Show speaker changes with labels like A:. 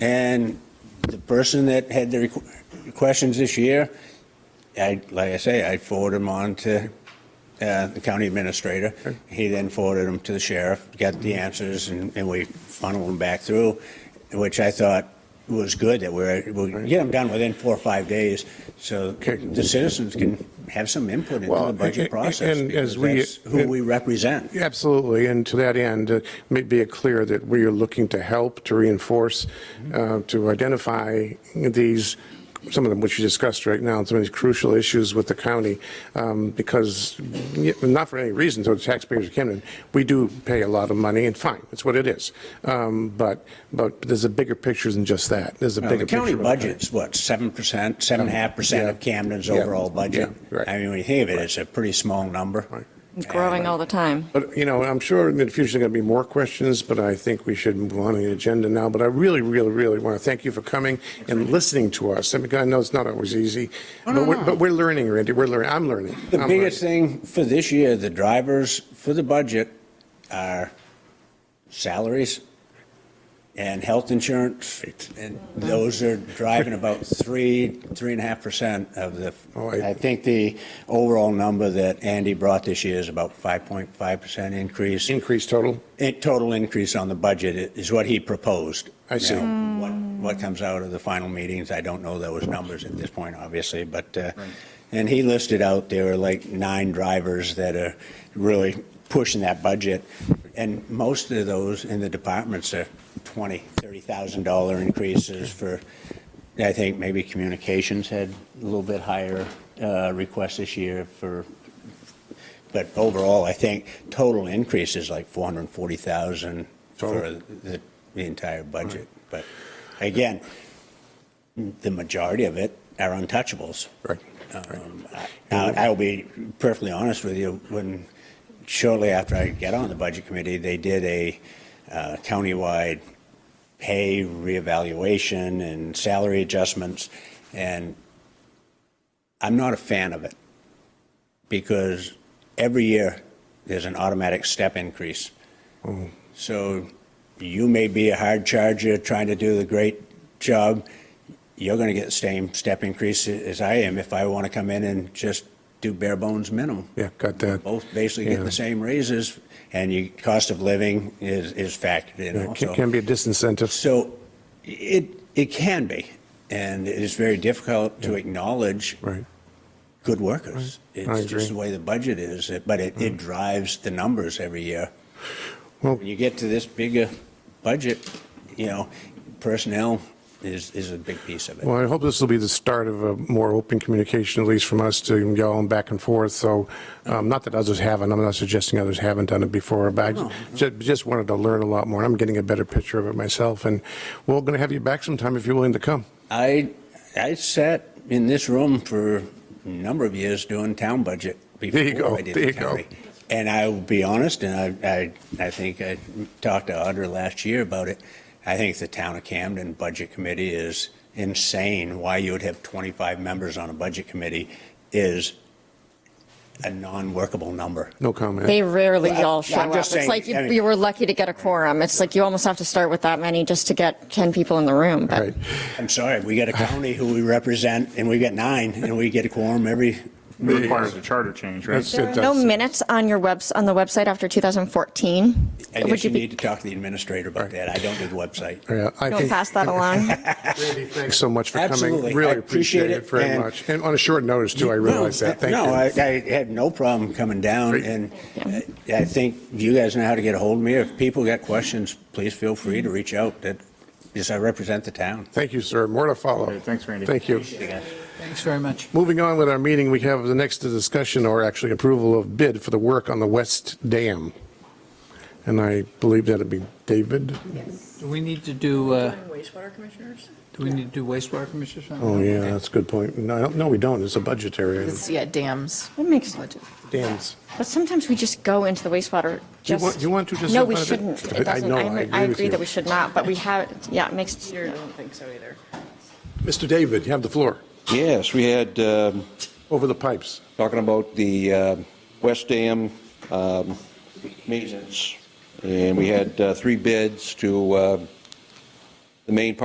A: And the person that had the requ- questions this year, I, like I say, I forwarded them on to uh, the county administrator. He then forwarded them to the sheriff, got the answers, and and we funneled them back through, which I thought was good, that we're, we'll get them done within four or five days, so
B: Okay.
A: the citizens can have some input into
B: Well,
A: the budget
B: and-
A: process.
B: and as
A: because
B: we-
A: that's Who we represent.
B: Absolutely, and to that end, uh, make it clear that we are looking to help, to reinforce,
A: Mm-hmm.
B: uh, to identify these, some of them which you discussed right now, some of these crucial issues with the county, um, because, yeah, not for any reason, so the taxpayers of Camden, we do pay a lot of money, and fine, it's what it is. Um, But, but there's a bigger picture than just that, there's a
A: Well, The
B: bigger picture.
A: county
B: about that.
A: budget's what, seven percent, seven and a half percent of
B: Yeah.
A: Camden's
B: Yeah.
A: overall budget?
B: Yeah, right.
A: I mean, when you think of it, it's a pretty small number.
C: growing all the time.
B: But, you know, I'm sure in the future there are going to be more questions, but I think we should move on to the agenda now. But I really, really, really want to thank you for coming and listening to us. I mean, I know it's not always easy, but we're, but we're learning, Randy. We're learning. I'm learning.
A: The
B: I'm
A: biggest
B: learning.
A: thing for this year, the drivers for the budget are salaries and health insurance. And those are driving about three, three and a half percent of the,
B: Oh, I-
A: I think the overall number that Andy brought this year is about 5.5 percent increase.
B: Increase total.
A: in- total increase on the budget is what he proposed.
B: I see.
A: Now, What, what comes out of the final meetings, I don't know those numbers at this point, obviously, but, uh, and he listed out, there are like nine drivers that are really pushing that budget, and most of those in the departments are twenty, thirty thousand dollar increases for, I think maybe communications had a little bit higher uh, request this year for but overall, I think total increase is like 440,000 for
B: Total.
A: the, the entire budget. But again, the majority of it are untouchables.
B: Right.
A: Um, I- I- I'll be perfectly honest with you, when, shortly after I got on the budget committee, they did a uh, countywide pay reevaluation and salary adjustments, and I'm not a fan of it, because every year, there's an automatic step increase. So you may be a hard charger trying to do the great job. You're going to get the same step increase as I am if I want to come in and just do bare bones minimum.
B: Yeah, got that.
A: Both basically get
B: Yeah.
A: the same raises and your cost of living is, is factored in
B: Yeah,
A: also.
B: Can can be a disincentive.
A: So it, it can be, and it is very difficult to acknowledge
B: Right.
A: good workers. It's
B: agree. Mm.
A: just the way the budget is, it- but it, it drives the numbers every year.
B: Well-
A: When you get to this bigger budget, you know, personnel is, is a big piece of it.
B: Well, I hope this will be the start of a more open communication, at least from us to y'all and back and forth. So, um, not that others haven't, I'm not suggesting others haven't done it before, but I ju- ju- just wanted to learn a lot more. I'm getting a better picture of it myself, and we're going to have you back sometime if you're willing to come.
A: I, I sat in this room for a number of years doing town budget
B: you go,
A: before I did
B: there
A: the
B: you go.
A: county. And I will be honest, and I, I, I think I talked to Audra last year about it. I think the town of Camden Budget Committee is insane. Why you would have 25 members on a budget committee is a non-workable number.
B: No comment.
C: They rarely
A: Well, I-
C: all show
A: I'm
C: up.
A: just
C: It's
A: saying,
C: like you
A: I mean-
C: you were lucky to get a quorum. It's like you almost have to start with that many just to get 10 people in the room, but.
B: Right.
A: I'm sorry, we got a county who we represent, and we got nine, and we get a quorum every,
D: It requires a charter change, right?
B: That's
C: There
B: it.
C: are no
B: That's it.
C: minutes on your webs, on the website after 2014?
A: I
C: Would
A: guess
C: you
A: you
C: be-
A: need to talk to the administrator about that. I don't do the website.
B: Yeah, I
C: Don't
B: think-
C: pass that along?
B: Randy, Thanks so much for coming.
A: Absolutely. I
B: Really
A: appreciate
B: appreciate
A: it,
B: it very
A: and-
B: much. And on a short notice, too, I realize that. Thank you.
A: No, I, I had no problem coming down,
B: Great.
A: and I I think you guys know how to get a hold of me. If people got questions, please feel free to reach out, that, because I represent the town.
B: Thank you, sir. More to follow.
D: Okay, thanks, Randy.
B: Thank you.
E: Thanks very much.
B: Moving on with our meeting, we have the next discussion or actually approval of bid for the work on the West Dam. And I believe that'd be David.
E: Do we need to do, uh,
F: Wastewater commissioners?
E: do we need to do wastewater commissioners?
B: Oh, yeah, that's a good point. No, I don't- no, we don't. It's a budgetary item.
F: Yeah, dams.
C: That makes,
B: Dams.
C: but sometimes we just go into the wastewater,
B: You want-
C: just.
B: you want to just
C: No,
B: have
C: we
B: that?
C: shouldn't.
B: I- I
C: It doesn't,
B: know, I
C: I
B: agree
C: I
B: with
C: agree
B: you.
C: that we should not, but we have, yeah, it makes.
F: I don't think so either.
B: Mr. David, you have the floor.
G: Yes, we had, um,
B: Over the pipes.
G: talking about the uh, West Dam um, maintenance, and we had uh, three bids to uh, the main part.